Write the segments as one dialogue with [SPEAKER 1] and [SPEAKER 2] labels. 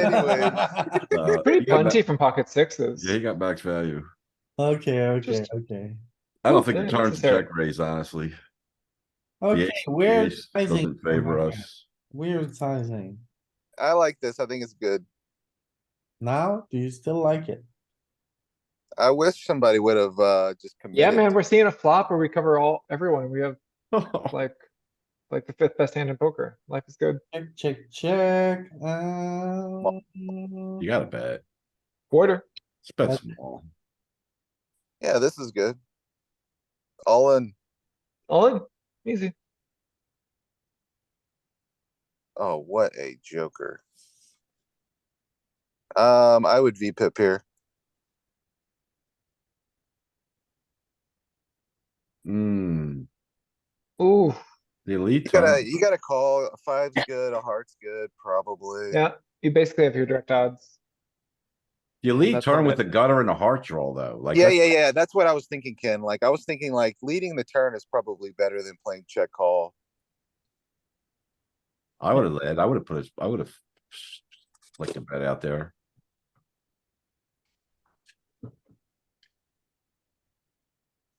[SPEAKER 1] anyway.
[SPEAKER 2] Uh,
[SPEAKER 3] Pretty
[SPEAKER 2] he got
[SPEAKER 3] punchy
[SPEAKER 2] ba-
[SPEAKER 3] from pocket sixes.
[SPEAKER 2] Yeah, he got max value.
[SPEAKER 1] Okay, okay,
[SPEAKER 3] Just-
[SPEAKER 1] okay.
[SPEAKER 2] I
[SPEAKER 3] Well,
[SPEAKER 2] don't think
[SPEAKER 3] yeah,
[SPEAKER 2] it turns
[SPEAKER 3] necessary.
[SPEAKER 2] check raise, honestly. The
[SPEAKER 1] Okay,
[SPEAKER 2] ace- the
[SPEAKER 1] weird
[SPEAKER 2] ace
[SPEAKER 1] sizing.
[SPEAKER 2] Doesn't favor
[SPEAKER 3] Oh,
[SPEAKER 1] Okay,
[SPEAKER 2] us.
[SPEAKER 1] Weird sizing.
[SPEAKER 4] I like this. I think it's good.
[SPEAKER 1] Now, do you still like it?
[SPEAKER 4] I wish somebody would have, uh, just committed.
[SPEAKER 3] Yeah, man, we're seeing a flop where we cover all, everyone. We have like, like the fifth best hand in poker. Life is good.
[SPEAKER 1] Check, check, check, um.
[SPEAKER 2] You gotta bet.
[SPEAKER 3] Quarter.
[SPEAKER 2] It's bet
[SPEAKER 1] That's-
[SPEAKER 2] small.
[SPEAKER 4] Yeah, this is good. All in.
[SPEAKER 3] All in. Easy.
[SPEAKER 4] Oh, what a joker. Um, I would V pip here.
[SPEAKER 2] Hmm,
[SPEAKER 3] Ooh,
[SPEAKER 2] the elite.
[SPEAKER 4] You gotta,
[SPEAKER 2] turn.
[SPEAKER 4] you gotta call. A Five's good, a heart's good, probably.
[SPEAKER 3] yeah. You basically have your direct odds.
[SPEAKER 2] The elite
[SPEAKER 3] That's what
[SPEAKER 2] turn
[SPEAKER 3] I
[SPEAKER 2] with the
[SPEAKER 3] think.
[SPEAKER 2] gutter and the heart draw though, like.
[SPEAKER 4] Yeah,
[SPEAKER 2] that's-
[SPEAKER 4] yeah, yeah. That's what I was thinking, Ken. Like, I was thinking like leading the turn is probably better than playing check call.
[SPEAKER 2] I would have led, I would have put, his- I would have flicked a bet out there.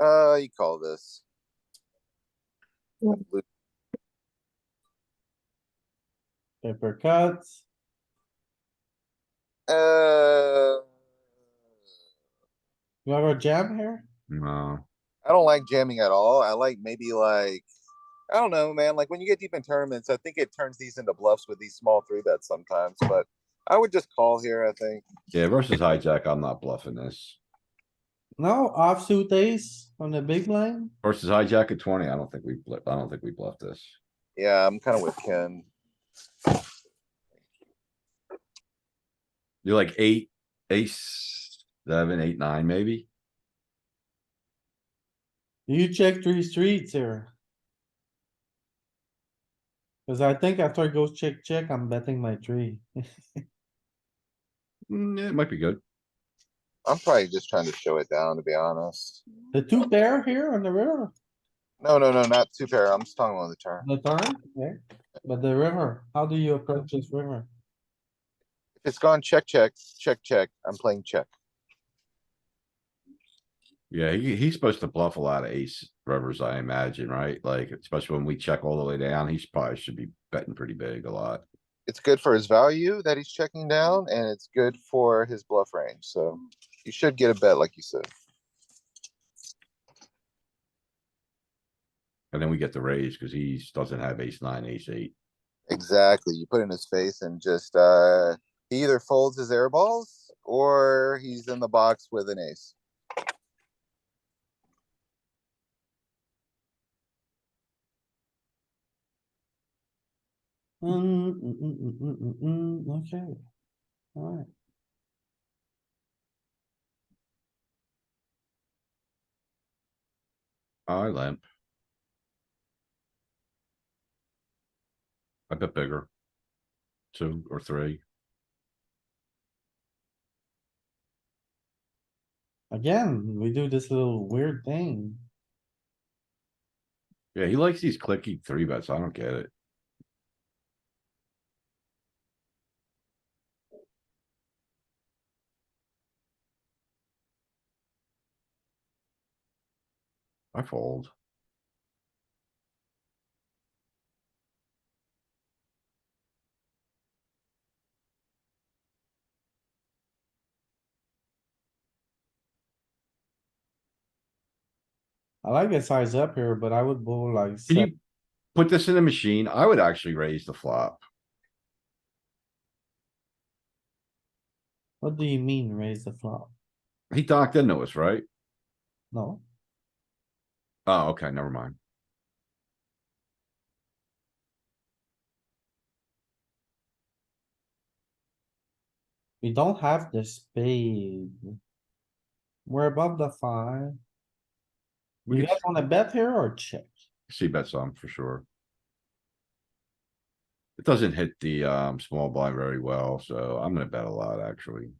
[SPEAKER 4] Uh, you call this.
[SPEAKER 1] Paper cuts,
[SPEAKER 4] Uh,
[SPEAKER 1] you have a jam here?
[SPEAKER 2] No,
[SPEAKER 4] I don't like jamming at all. I like maybe like, I don't know, man. Like when you get deep in tournaments, I think it turns these into bluffs with these small three bets sometimes, but I would just call here, I think.
[SPEAKER 2] yeah, versus hijack, I'm not bluffing this.
[SPEAKER 1] No, offsuit ace on the big line?
[SPEAKER 2] Versus hijack at twenty, I don't think we, bluff- I don't think we bluff this.
[SPEAKER 4] Yeah, I'm kind of with Ken.
[SPEAKER 2] You're like eight, ace, seven, eight, nine, maybe?
[SPEAKER 1] You check three streets here. Cause I think after it goes check, check, I'm betting my tree.
[SPEAKER 2] Mm, yeah, it might be good.
[SPEAKER 4] I'm probably just trying to show it down, to be honest.
[SPEAKER 1] The two pair here on the river,
[SPEAKER 4] No, no, no, not two pair. I'm just talking on the turn.
[SPEAKER 1] the turn, yeah, but the river, how do you approach this river?
[SPEAKER 4] If it's gone check, check, check, check, I'm playing check.
[SPEAKER 2] Yeah, he, he's supposed to bluff a lot of ace rivers, I imagine, right? Like, especially when we check all the way down, he's probably should be betting pretty big a lot.
[SPEAKER 4] It's good for his value that he's checking down and it's good for his bluff range. So you should get a bet like you said.
[SPEAKER 2] And then we get the raise because he doesn't have ace nine, ace eight.
[SPEAKER 4] Exactly. You put it in his face and just uh he either folds his air balls or he's in the box with an ace.
[SPEAKER 1] Mm, mm, mm, mm, mm, mm, mm, okay. Alright,
[SPEAKER 2] I limp. I bet bigger. Two or three.
[SPEAKER 1] again, we do this little weird thing.
[SPEAKER 2] Yeah, he likes these clicky three bets. I don't get it. I fold.
[SPEAKER 1] I like the size up here, but I would go like,
[SPEAKER 2] Can
[SPEAKER 1] seven.
[SPEAKER 2] you put this in the machine? I would actually raise the flop.
[SPEAKER 1] what do you mean raise the flop?
[SPEAKER 2] He docked into us, right?
[SPEAKER 1] No,
[SPEAKER 2] Oh, okay, never mind.
[SPEAKER 1] we don't have the spade. We're above the five.
[SPEAKER 2] We
[SPEAKER 1] You
[SPEAKER 2] could
[SPEAKER 1] guys wanna bet here or check?
[SPEAKER 2] see bet some for sure. It doesn't hit the um small blind very well, so I'm gonna bet a lot, actually.